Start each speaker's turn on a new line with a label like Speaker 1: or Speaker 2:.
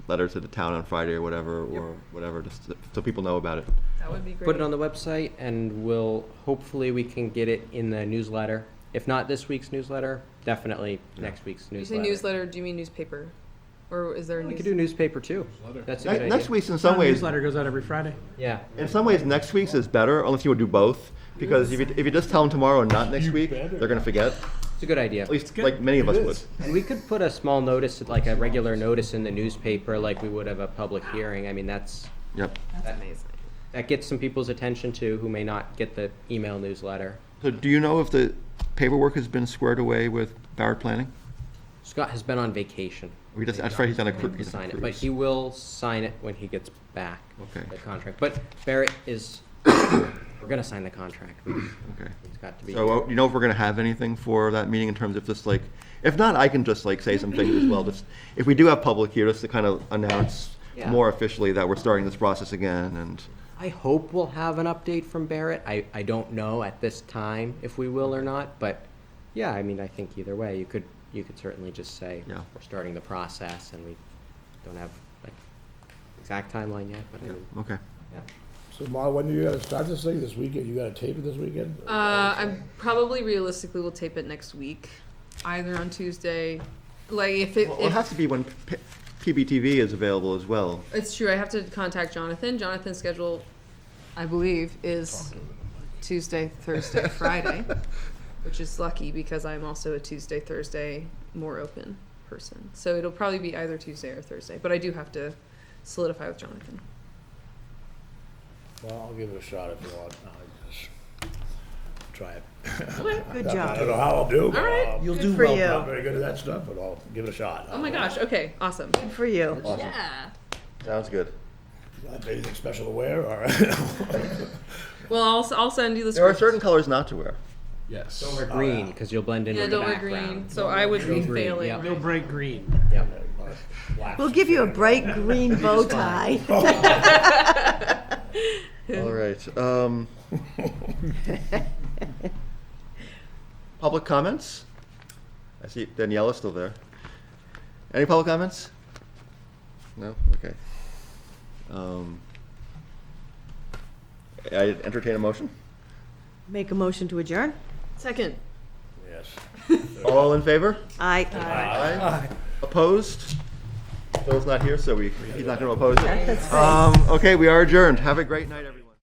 Speaker 1: letter to the town on Friday or whatever, or whatever, just so- so people know about it.
Speaker 2: That would be great.
Speaker 3: Put it on the website and we'll, hopefully we can get it in the newsletter. If not this week's newsletter, definitely
Speaker 1: Yeah.
Speaker 3: next week's
Speaker 2: You say
Speaker 3: newsletter.
Speaker 2: newsletter, do you mean newspaper? Or is there a
Speaker 3: We
Speaker 2: news?
Speaker 3: could do newspaper too. That's a good
Speaker 1: Ne-
Speaker 3: idea.
Speaker 1: Next week's in some
Speaker 4: Our
Speaker 1: ways,
Speaker 4: Newsletter goes out every Friday.
Speaker 3: Yeah.
Speaker 1: in some ways, next week's is better, unless you would do both. Because if you, if you just tell them tomorrow and not next
Speaker 5: You
Speaker 1: week,
Speaker 5: better.
Speaker 1: they're gonna forget,
Speaker 3: It's a good idea.
Speaker 1: at least
Speaker 4: good.
Speaker 1: like many of us
Speaker 5: It
Speaker 1: would.
Speaker 5: is.
Speaker 3: And we could put a small notice, like a regular notice in the newspaper, like we would of a public hearing. I mean, that's,
Speaker 1: Yep.
Speaker 2: That's amazing.
Speaker 3: that gets some people's attention too, who may not get the email newsletter.
Speaker 1: So do you know if the paperwork has been squared away with Barrett Planning?
Speaker 3: Scott has been on vacation.
Speaker 1: We just, that's right, he's on a cru-
Speaker 3: to
Speaker 1: he's on
Speaker 3: sign
Speaker 1: a
Speaker 3: it, but
Speaker 1: cruise.
Speaker 3: he will sign it when he gets back.
Speaker 1: Okay.
Speaker 3: The contract, but Barrett is, we're gonna sign the contract.
Speaker 1: Okay.
Speaker 3: It's got to be.
Speaker 1: So uh, you know if we're gonna have anything for that meeting in terms of just like, if not, I can just like say some things as well. Just if we do have public here, just to kind of announce
Speaker 3: Yeah.
Speaker 1: more officially that we're starting this process again and.
Speaker 3: I hope we'll have an update from Barrett. I, I don't know at this time if we will or not, but yeah, I mean, I think either way, you could, you could certainly just say,
Speaker 1: Yeah.
Speaker 3: we're starting the process and we don't have like exact timeline yet, but I mean,
Speaker 1: Okay.
Speaker 3: yeah.
Speaker 6: So Ma, when do you gotta start this thing this weekend? You gotta tape it this weekend?
Speaker 2: Uh, I probably realistically will tape it next week, either on Tuesday, like if it,
Speaker 1: Well, it
Speaker 2: if
Speaker 1: has to be when P- PBTV is available as well.
Speaker 2: It's true. I have to contact Jonathan. Jonathan's schedule, I believe, is Tuesday, Thursday, Friday, which is lucky because I'm also a Tuesday, Thursday more open person. So it'll probably be either Tuesday or Thursday, but I do have to solidify with Jonathan.
Speaker 6: Well, I'll give it a shot if you want. I'll just Try it.
Speaker 7: Good
Speaker 6: I don't
Speaker 7: job.
Speaker 6: know how I'll do, but
Speaker 2: All right.
Speaker 6: I'll-
Speaker 7: You'll Good do for well,
Speaker 6: I'm not
Speaker 7: you.
Speaker 6: very good at that stuff, but I'll give it a shot.
Speaker 2: Oh my gosh. Okay. Awesome.
Speaker 7: Good for you.
Speaker 2: Yeah.
Speaker 1: Sounds good.
Speaker 6: Not Anything special to wear or?
Speaker 2: Well, I'll, s- I'll send you the
Speaker 1: There are
Speaker 2: script.
Speaker 1: certain colors not to wear.
Speaker 4: Yes.
Speaker 3: Or green, because you'll blend
Speaker 2: Uh,
Speaker 3: in
Speaker 2: yeah,
Speaker 3: with the
Speaker 2: don't wear
Speaker 3: background.
Speaker 2: green. So I would be
Speaker 3: green,
Speaker 2: failing.
Speaker 3: yeah.
Speaker 4: No
Speaker 2: right?
Speaker 4: bright green.
Speaker 7: We'll give you a bright green bow tie.
Speaker 1: All right. Um, public comments? I see Daniela's still there. Any public comments? No? Okay. Um, I entertain a motion.
Speaker 7: Make a motion to adjourn?
Speaker 2: Second.
Speaker 6: Yes.
Speaker 1: All in favor?
Speaker 7: Aye.
Speaker 1: Aye. Opposed? Phil's not here, so we, he's not going to oppose it.
Speaker 7: That's
Speaker 1: Um, okay, we are adjourned. Have a great night, everyone.